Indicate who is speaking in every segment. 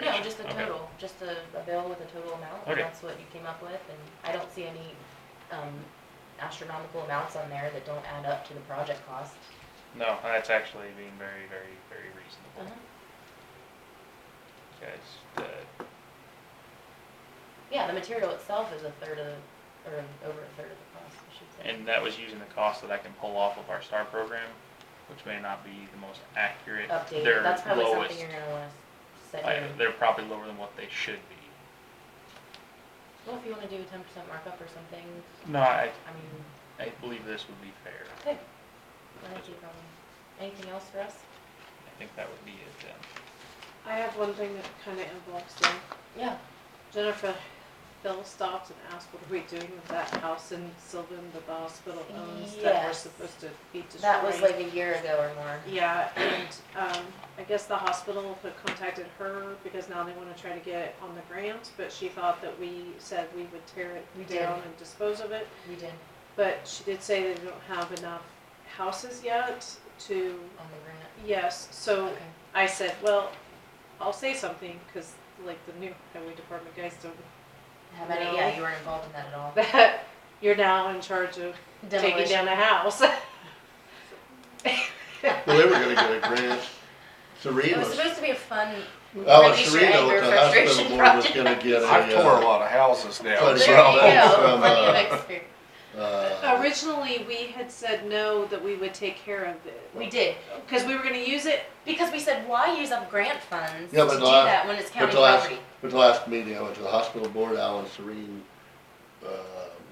Speaker 1: No, just the
Speaker 2: Okay.
Speaker 1: total, just the, a bill with a total amount, and
Speaker 2: Okay.
Speaker 1: that's what you came up with, and I don't see any, um, astronomical amounts on there that don't add up to the project cost.
Speaker 2: No, that's actually being very, very, very
Speaker 1: Uh-huh.
Speaker 2: reasonable. Guys, uh,
Speaker 1: Yeah, the material itself is a third of, or over a third of the cost, I should say.
Speaker 2: and that was using the cost that I can pull off of our STAR program, which may not be the most accurate. They're
Speaker 1: Updated, that's probably something
Speaker 2: lowest.
Speaker 1: you're gonna wanna set
Speaker 2: I-
Speaker 1: your,
Speaker 2: They're probably lower than what they should be.
Speaker 1: well, if you wanna do a ten percent markup or something,
Speaker 2: No, I,
Speaker 1: I mean,
Speaker 2: I believe this would be fair.
Speaker 1: okay. I think you probably, anything else for us?
Speaker 2: I think that would be it then.
Speaker 3: I have one thing that kinda involves them.
Speaker 1: Yeah,
Speaker 3: Jennifer Phil stopped and asked, what are we doing with that house in Sylvan that the hospital owns that we're
Speaker 1: Yes.
Speaker 3: supposed to be destroying?
Speaker 1: that was like a year ago or more.
Speaker 3: Yeah, and, um, I guess the hospital had contacted her because now they wanna try to get it on the grant, but she thought that we said we would tear
Speaker 1: We
Speaker 3: it
Speaker 1: did.
Speaker 3: down and dispose of it.
Speaker 1: We did,
Speaker 3: But she did say they don't have enough houses yet to,
Speaker 1: on the grant,
Speaker 3: yes, so
Speaker 1: okay.
Speaker 3: I said, well, I'll say something, cause like the new highway department guys don't,
Speaker 1: Have any,
Speaker 3: No.
Speaker 1: yeah, you weren't involved in that at all.
Speaker 3: that you're now in charge of taking
Speaker 1: Demolition.
Speaker 3: down a house.
Speaker 4: Well, they were gonna get a grant.
Speaker 1: It was
Speaker 4: Serena's,
Speaker 1: supposed to be a fun,
Speaker 4: Alice
Speaker 1: release your
Speaker 4: Serena
Speaker 1: anger,
Speaker 4: with the hospital
Speaker 1: frustration
Speaker 4: board was
Speaker 1: project.
Speaker 4: gonna get a,
Speaker 5: I've tore
Speaker 4: uh,
Speaker 5: a lot of houses now.
Speaker 4: But
Speaker 1: there you
Speaker 4: it's all
Speaker 1: go,
Speaker 4: that from,
Speaker 1: plenty of
Speaker 4: uh,
Speaker 1: experience. Oh,
Speaker 4: uh,
Speaker 3: Originally, we had said no, that we would take care of it,
Speaker 1: We did,
Speaker 3: cause we were gonna use it,
Speaker 1: because we said, why use up grant funds to
Speaker 4: Yeah,
Speaker 1: do
Speaker 4: but the last-
Speaker 1: that when it's
Speaker 4: but
Speaker 1: county
Speaker 4: the last,
Speaker 1: property?
Speaker 4: but the last meeting, I went to the hospital board, Alan Serene, uh,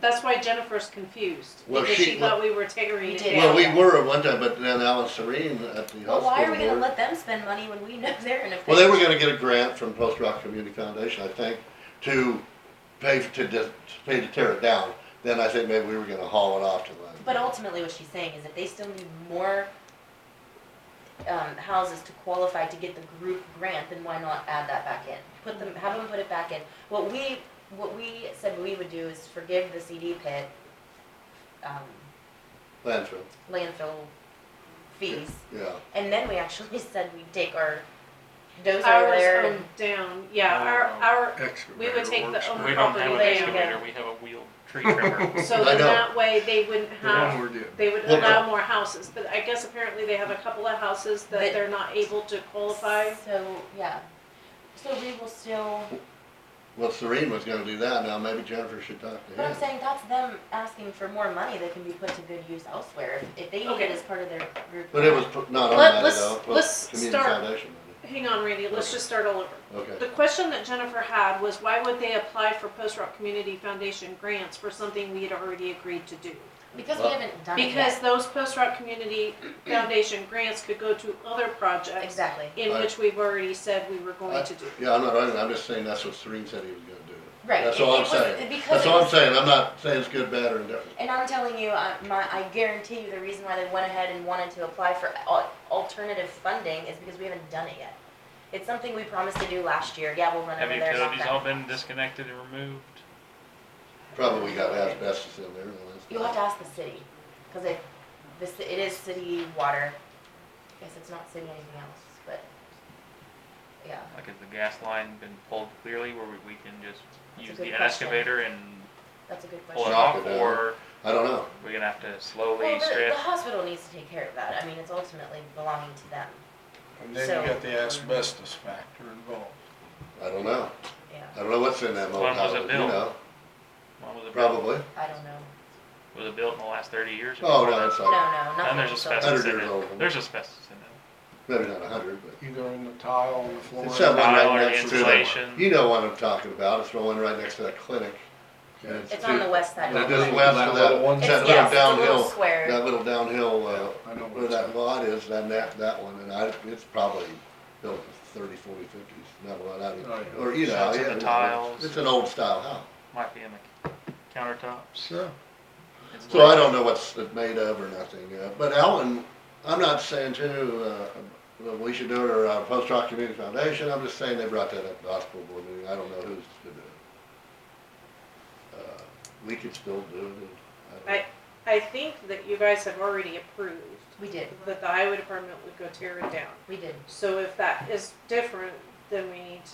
Speaker 3: that's why Jennifer's confused,
Speaker 4: Well,
Speaker 3: because she
Speaker 4: she-
Speaker 3: thought we were tearing
Speaker 1: We
Speaker 3: it
Speaker 1: did.
Speaker 3: down.
Speaker 4: well, we were at one time, but then Alan Serene at the
Speaker 1: Well, why are we
Speaker 4: hospital
Speaker 1: gonna
Speaker 4: board.
Speaker 1: let them spend money when we know they're in a.
Speaker 4: Well, they were gonna get a grant from Post Rock Community Foundation, I think, to pay, to, dis- to pay to tear it down. Then I think maybe we were gonna haul it off to them.
Speaker 1: But ultimately, what she's saying is that they still need more, um, houses to qualify to get the group grant, then why not add that back in? Put them, have them put it back in. What we, what we said we would do is forgive the CD pit, um,
Speaker 4: Landfill,
Speaker 1: landfill fees.
Speaker 4: yeah.
Speaker 1: And then we actually said we'd take our dozer
Speaker 3: Ours
Speaker 1: there
Speaker 3: are
Speaker 1: and
Speaker 3: down, yeah, our,
Speaker 2: Oh.
Speaker 3: our, we
Speaker 5: Excavator
Speaker 3: would take the
Speaker 5: works
Speaker 3: own
Speaker 2: We don't have
Speaker 3: property
Speaker 2: an
Speaker 1: There you
Speaker 3: down,
Speaker 2: excavator, we have a wheeled tree trimmer.
Speaker 3: so
Speaker 4: I
Speaker 3: then
Speaker 4: know.
Speaker 3: that way they wouldn't
Speaker 5: better.
Speaker 3: have
Speaker 5: The one we're doing.
Speaker 3: They would
Speaker 4: Well,
Speaker 3: allow more houses, but I guess apparently they have a couple of houses
Speaker 1: That-
Speaker 3: that they're not able to qualify.
Speaker 1: So, yeah. So we will still,
Speaker 4: Well, Serene was gonna do that, now maybe Jennifer should talk to him.
Speaker 1: but I'm saying that's them asking for more money that can be put to good use elsewhere. If, if they need it
Speaker 3: Okay.
Speaker 1: as part of their group.
Speaker 4: But it was pr- not on
Speaker 3: Let-
Speaker 4: that at
Speaker 3: let's-
Speaker 4: all, it was
Speaker 3: let's
Speaker 4: community
Speaker 3: start-
Speaker 4: foundation
Speaker 3: Hang on, Randy, let's
Speaker 4: Okay.
Speaker 3: just start all over.
Speaker 4: money. Okay,
Speaker 3: The question that Jennifer had was why would they apply for Post Rock Community Foundation grants for something we had already agreed to do?
Speaker 1: Because we
Speaker 4: Well-
Speaker 1: haven't done it
Speaker 3: Because
Speaker 1: yet.
Speaker 3: those Post Rock Community Foundation grants could go to other projects
Speaker 1: Exactly.
Speaker 3: in
Speaker 4: Right.
Speaker 3: which we've already said we were going
Speaker 4: Right.
Speaker 3: to do.
Speaker 4: yeah, I'm not arguing, I'm just saying that's what Serene said he was gonna do.
Speaker 1: Right.
Speaker 4: That's
Speaker 1: It-
Speaker 4: all
Speaker 1: it
Speaker 4: I'm
Speaker 1: was-
Speaker 4: saying,
Speaker 1: because
Speaker 4: that's
Speaker 1: it
Speaker 4: all I'm
Speaker 1: was-
Speaker 4: saying, I'm not saying it's good, bad, or indifferent.
Speaker 1: And I'm telling you, I, my, I guarantee you the reason why they went ahead and wanted to apply for al- alternative funding is because we haven't done it yet. It's something we promised to do last year. Yeah, we'll run
Speaker 2: Have
Speaker 1: over there. knock
Speaker 2: utilities
Speaker 1: that
Speaker 2: all
Speaker 1: out.
Speaker 2: been disconnected and removed?
Speaker 4: Probably got asbestos in there. and all that
Speaker 1: You'll have
Speaker 4: stuff.
Speaker 1: to ask the city, cause it, this, it is city water. Guess it's not city anything else, but, yeah.
Speaker 2: Like, has the gas line been pulled clearly where we, we can just
Speaker 1: That's a
Speaker 2: use
Speaker 1: good
Speaker 2: the
Speaker 1: question.
Speaker 2: excavator and
Speaker 1: That's a good
Speaker 2: pull it
Speaker 1: question.
Speaker 2: off,
Speaker 4: Well, Knock it down.
Speaker 2: or
Speaker 4: I don't know,
Speaker 2: we're gonna have to
Speaker 1: Well,
Speaker 2: slowly
Speaker 1: the,
Speaker 2: strip?
Speaker 1: the hospital needs to take care of that. I mean, it's ultimately belonging to them,
Speaker 5: And
Speaker 1: So-
Speaker 5: then you got the asbestos factor involved.
Speaker 4: I don't know,
Speaker 1: yeah.
Speaker 4: I don't know what's in that
Speaker 2: When was
Speaker 4: motel,
Speaker 2: it
Speaker 4: you
Speaker 2: built?
Speaker 4: know,
Speaker 2: When was it built?
Speaker 4: probably,
Speaker 1: I don't know.
Speaker 2: Was it built in the last thirty years?
Speaker 4: oh, no, it's
Speaker 1: No, no,
Speaker 4: like,
Speaker 1: not.
Speaker 2: And there's
Speaker 1: that it's
Speaker 2: asbestos
Speaker 4: Hundred
Speaker 2: in it.
Speaker 4: years old.
Speaker 2: There's asbestos in it.
Speaker 4: maybe not a hundred, but.
Speaker 5: Either in the tile or the floor.
Speaker 4: It's that one
Speaker 2: Tile or
Speaker 4: right next to the,
Speaker 2: insulation.
Speaker 4: you know what I'm talking about, it's the one right next to that clinic. and
Speaker 1: It's on the west side.
Speaker 4: And
Speaker 1: of
Speaker 4: it
Speaker 1: the
Speaker 4: just
Speaker 1: building.
Speaker 4: west
Speaker 5: That
Speaker 4: of
Speaker 5: little
Speaker 4: that,
Speaker 5: one
Speaker 1: It's,
Speaker 4: that
Speaker 1: yes,
Speaker 4: little
Speaker 1: it's a little
Speaker 4: downhill,
Speaker 1: square.
Speaker 4: that little downhill, uh,
Speaker 5: I know
Speaker 4: where
Speaker 5: what you're
Speaker 4: that
Speaker 5: saying.
Speaker 4: lot is, then that, that one, and I, it's probably built in the thirty, forty, fifties, not a lot out
Speaker 5: Oh,
Speaker 4: of,
Speaker 5: yeah.
Speaker 4: or, you know,
Speaker 2: Shots of
Speaker 4: yeah,
Speaker 2: the
Speaker 4: it's-
Speaker 2: tiles.
Speaker 4: It's an old style house.
Speaker 2: Might be in the countertops.
Speaker 5: Sure.
Speaker 2: It's
Speaker 4: So
Speaker 2: like-
Speaker 4: I don't know what's it made of or nothing, uh, but Alan, I'm not saying too, uh, that we should do it or, uh, Post Rock Community Foundation, I'm just saying they brought that up at the hospital board meeting, I don't know who's to do it. Uh, We could still do it, and I don't-
Speaker 3: I, I think that you guys have already approved
Speaker 1: We did,
Speaker 3: that the highway department would go tear it down.
Speaker 1: we did.
Speaker 3: So if that is different, then we need to